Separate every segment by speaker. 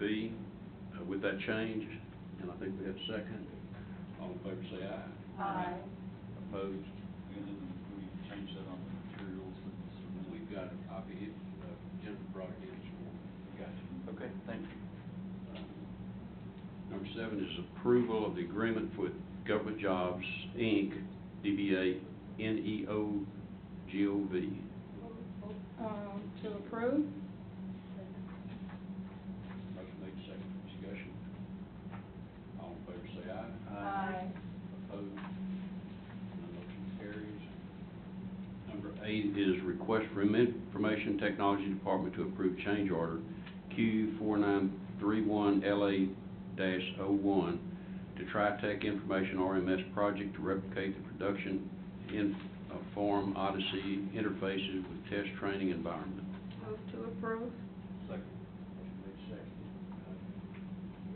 Speaker 1: B uh, with that change, and I think we have a second. All in favor, say aye.
Speaker 2: Aye.
Speaker 1: Opposed?
Speaker 3: And then we change that on the materials and so we
Speaker 1: We've got a copy, if uh, Jennifer brought it in this morning.
Speaker 3: got you. Okay, thank you.
Speaker 1: Uh, Number seven is approval of the agreement with Government Jobs, Inc., DBA NEO GOV.
Speaker 2: Um, to approve?
Speaker 1: Motion made, second discussion. All in favor, say aye. Opposed? None motion carries. Number eight is request from Information Technology Department to approve change order Q four nine three one LA dash oh one to TriTech Information RMS project to replicate the production in uh, form Odyssey interfaces with test training environment.
Speaker 2: Move to approve?
Speaker 3: Second.
Speaker 1: Motion made second.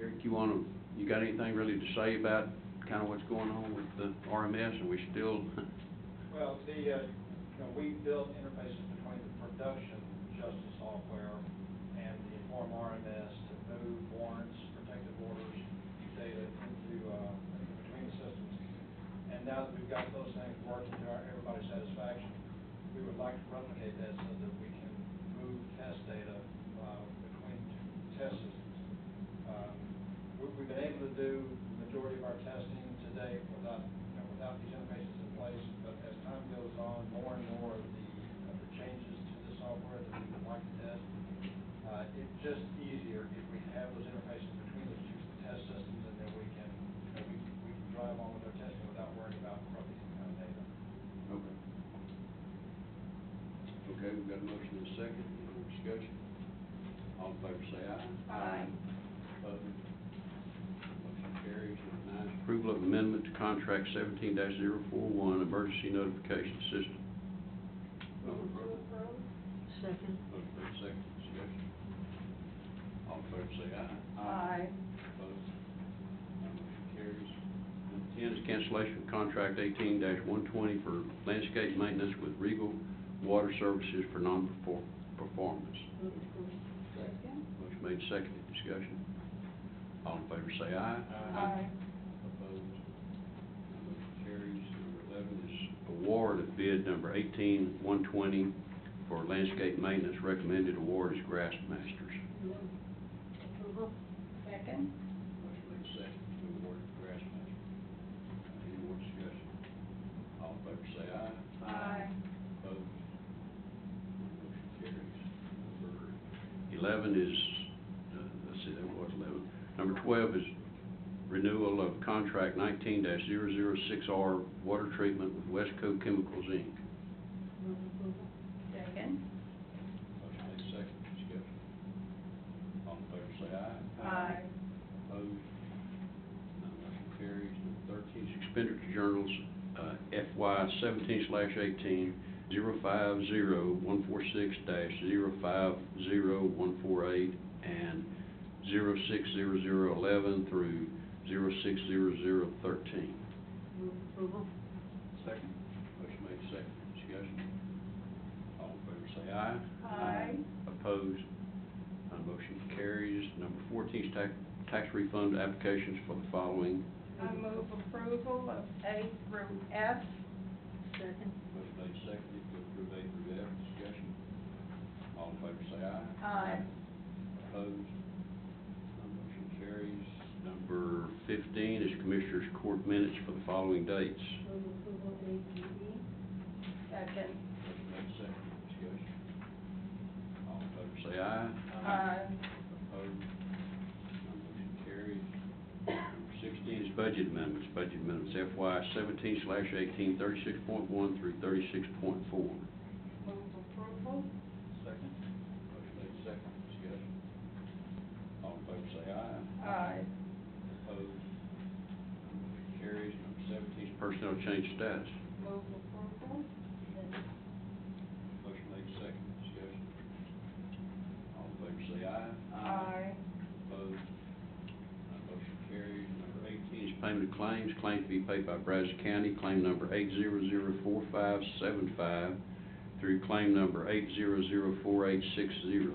Speaker 1: Eric, you wanna, you got anything really to say about kinda what's going on with the RMS, are we still?
Speaker 4: Well, the, uh, you know, we built interfaces between the production justice software and the Inform RMS to move warrants, protective orders, data into, uh, into between the systems. And now that we've got those things working to our, everybody's satisfaction, we would like to replicate that so that we can move test data, uh, between two test systems. Um, we- We've been able to do the majority of our testing today without, you know, without these interfaces in place, but as time goes on, more and more of the, of the changes to the software that we would like to test, uh, it's just easier if we have those interfaces between the two test systems, and then we can, you know, we can- we can drive on with our testing without worrying about corrupting some kind of data.
Speaker 1: Okay. Okay, we've got a motion and a second, any more discussion? All in favor say aye.
Speaker 2: Aye.
Speaker 1: Opposed? Motion carries. Number nine, approval of amendment to contract seventeen 41 emergency notification system.
Speaker 2: Move to approve?
Speaker 5: Second.
Speaker 1: Motion made second discussion. All in favor say aye. Opposed? None motion carries. Number ten is cancellation of contract eighteen one twenty for landscape maintenance with Regal Water Services for non-performance.
Speaker 5: Move approval.
Speaker 2: Second?
Speaker 1: Motion made second discussion. All in favor say aye.
Speaker 2: Aye.
Speaker 1: Opposed? None motion carries. Number eleven is award of bid number eighteen one twenty for landscape maintenance. Recommended award is Grass Masters.
Speaker 5: Move approval.
Speaker 2: Second?
Speaker 1: Motion made second to award to Grassmaster. Any more discussion? All in favor say aye. Opposed? Motion carries. Number eleven is, uh, let's see, that was eleven. Number twelve is renewal of contract nineteen 6 R water treatment with Westco Chemicals, Inc.
Speaker 5: Move approval.
Speaker 2: Second?
Speaker 1: Motion made second discussion. All in favor say aye. Opposed? None motion carries. Number thirteen is expenditure journals uh, FY seventeen slash eighteen, zero five zero one four six dash zero five zero one four eight and zero six zero zero eleven through zero six zero zero thirteen.
Speaker 5: Move approval.
Speaker 3: Second.
Speaker 1: Motion made second, discussion. All in favor say aye.
Speaker 2: Aye.
Speaker 1: Opposed? None motion carries. Number fourteen is tax, tax refund applications for the following
Speaker 2: I move approval of A through F.
Speaker 5: Second.
Speaker 1: Motion made seconded to approve A through F, discussion. All in favor say aye.
Speaker 2: Aye.
Speaker 1: Opposed? None motion carries. Number fifteen is Commissioners Court minutes for the following dates.
Speaker 5: Move approval A through E.
Speaker 2: Second?
Speaker 1: Motion made seconded, discussion. All in favor say aye. Opposed? None motion carries. Number sixteen is budget amendments, budget amendments FY seventeen slash eighteen, thirty-six point one through thirty-six point four.
Speaker 2: Move approval?
Speaker 3: Second.
Speaker 1: Motion made second, discussion. All in favor say aye.
Speaker 2: Aye.
Speaker 1: Opposed? Motion Carries. Number seventeen is personnel change status.
Speaker 2: Move approval?
Speaker 1: Motion made second, discussion. All in favor say aye. Opposed? None motion carries. Number eighteen is payment of claims. Claim to be paid by Brazos County, claim number eight zero zero four five seven five through claim number eight zero zero four eight six zero.